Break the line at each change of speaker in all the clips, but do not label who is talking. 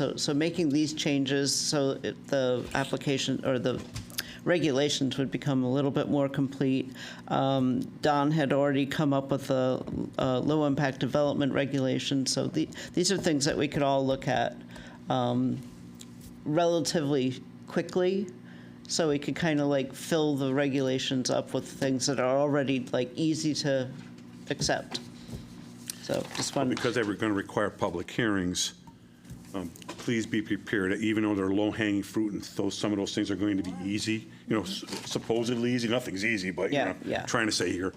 So, so making these changes so it- the application or the regulations would become a little bit more complete. Um, Don had already come up with a, uh low-impact development regulation, so the, these are things that we could all look at um, relatively quickly. So we could kind of like fill the regulations up with things that are already like easy to accept. So just wanted
Because they were going to require public hearings, um, please be prepared, even though they're low-hanging fruit and those, some of those things are going to be easy, you know, s- supposedly easy, nothing's easy, but, you
Yeah,
know,
yeah.
trying to say here,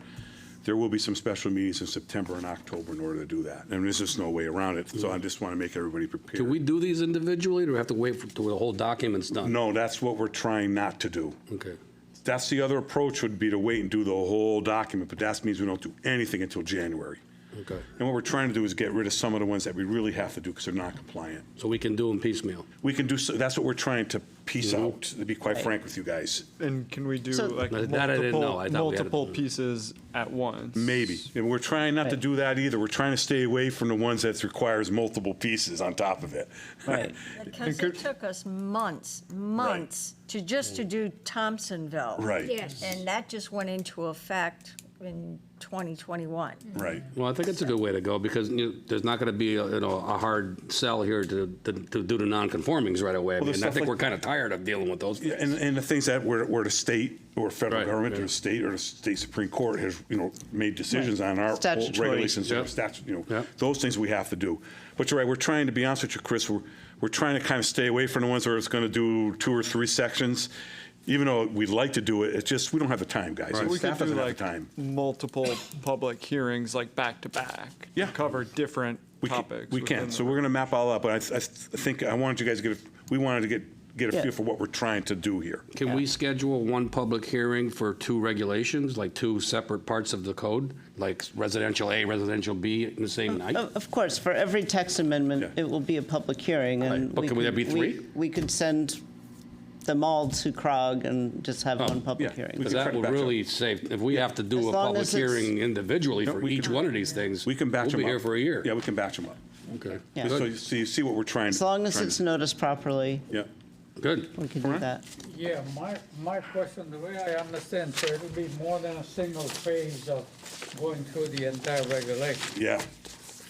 there will be some special meetings in September and October in order to do that. And there's just no way around it, so I just want to make everybody prepared.
Do we do these individually, or do we have to wait for- till the whole document's done?
No, that's what we're trying not to do.
Okay.
That's the other approach would be to wait and do the whole document, but that means we don't do anything until January.
Okay.
And what we're trying to do is get rid of some of the ones that we really have to do because they're not compliant.
So we can do them piecemeal.
We can do, so. that's what we're trying to piece out, to be quite frank with you guys.
And can we do
So-
like
No, that I didn't know. I
multiple,
thought we had to-
multiple pieces at once?
Maybe. And we're trying not to
Right.
do that either. We're trying to stay away from the ones that requires multiple pieces on top of it.
Right.
And
Because
could-
it took us months, months, to just to do Thompsonville.
Mm. Right.
Yes.
And that just went into effect in 2021.
Right.
Well, I think it's a good way to go, because you know, there's not going to be, a- you know, a hard sell here to, to to do the non-conformings right away. I
Well, there's
mean, I
stuff
think
like-
we're kind of tired of dealing with those.
Yeah, And, and the things that were, were the state or federal
Right,
government or
yeah.
the state or the state Supreme Court has, you know, made decisions on our old
Statutory.
regulations or
Yep.
statute, you know,
Yep.
those things we have to do. But you're right, we're trying to be honest with you, Chris, we're, we're trying to kind of stay away from the ones where it's going to do two or three sections. Even though we'd like to do it, it's just, we don't have the time, guys.
So
And
we
Staff
could do
doesn't have
like
the time.
multiple public hearings, like back to back.
Yeah.
Cover different
We can,
topics.
we
within
can.
the-
So we're going to map all up, but I, th- I th- think, I wanted you guys to get, a- we wanted to get, get a
Yeah.
feel for what we're trying to do here.
Can we schedule one public hearing for two regulations, like two separate parts of the code? Like residential A, residential B in the same night?
Of of course, for every tax amendment,
Yeah.
it will be a public hearing, and.
Right, but can we
could-
have be three?
we- We could send them all to CROG and just
Oh,
have one public
yeah.
hearing.
We
Because
can
that
try to
would
batch up.
really save, if we have to
As
do a
long
public
as it's-
hearing individually for
we
each
can-
one of these things.
We can batch them up.
We'll be here for a year.
Yeah, we can batch them up.
Okay.
Yeah.
So
Good,
you, so you see what we're trying.
As long as
trying
it's
to-
noticed properly,
Yeah.
Good.
we can do
Alright.
that.
Yeah, my, my question, the way I understand, so it'll be more than a single phase of going through the entire regulation.
Yeah.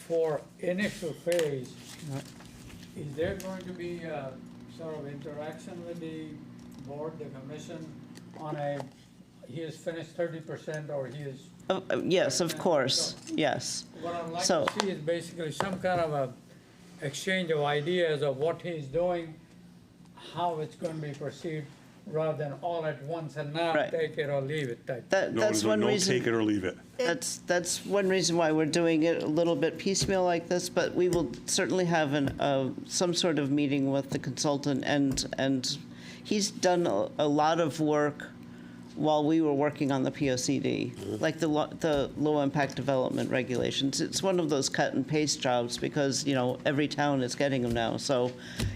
For initial phase, is there going to be a sort of interaction with the board, the commission, on a, he has finished thirty percent or he is,
Oh, oh, Yes, of course, yes.
what I'd like
So-
to see is basically some kind of a exchange of ideas of what he's doing, how it's going to be perceived, rather than all at once and now
Right.
take it or leave it type.
That,
No,
that's
no,
one
no,
reason.
Take it or leave it.
That's, that's one reason why we're doing it a little bit piecemeal like this, but we will certainly have an, uh, some sort of meeting with the consultant, and, and he's done a a lot of work while we were working on the POCD, like the, lo- the low-impact development regulations. It's one of those cut-and-paste jobs, because, you know, every town is getting them now, so,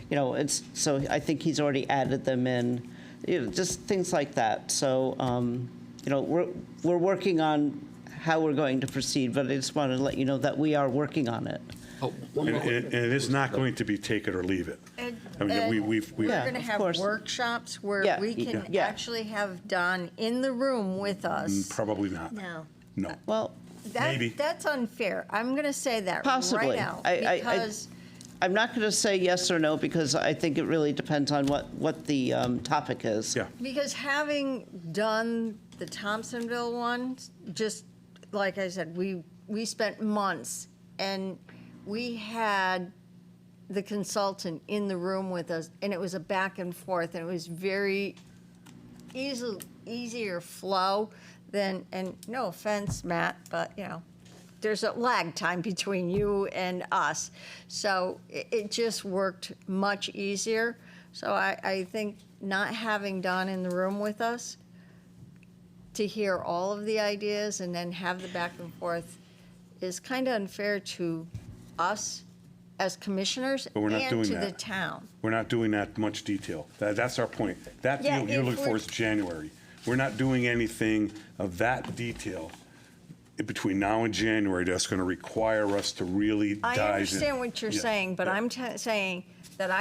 you know, it's, so I think he's already added them in, you know, just things like that. So, um, you know, we're, we're working on how we're going to proceed, but I just want to let you know that we are working on it.
Oh, one
And, and
more question.
and it is not going to be take it or leave it.
And-
I mean,
and
we, we've, we,
We're
Yeah.
going to
of
have
course.
workshops where
Yeah,
we
yeah.
can
Yeah.
actually have Don in the room with us.
probably not.
No.
No.
Well,
That-
Mm, Maybe.
That's unfair. I'm going to say that right
Possibly.
now.
I- I- I-
Because
I'm not going to say yes or no because I think it really depends on what, what the um, topic is.
Yeah.
Because having done the Thompsonville one, just like I said, we, we spent months and we had the consultant in the room with us and it was a back and forth and it was very easy, easier flow than, and no offense, Matt, but you know, there's a lag time between you and us. So it, it just worked much easier. So I, I think not having Don in the room with us to hear all of the ideas and then have the back and forth is kind of unfair to us as commissioners
But we're not
and
doing
to the
that.
town.
We're not doing that much detail. That, that's our point. That
Yeah,
deal you're
if
looking for
we're-
is January. We're not doing anything of that detail between now and January that's going to require us to really dive
I
in.
understand what you're
Yeah.
saying, but
Yeah.
I'm t- saying that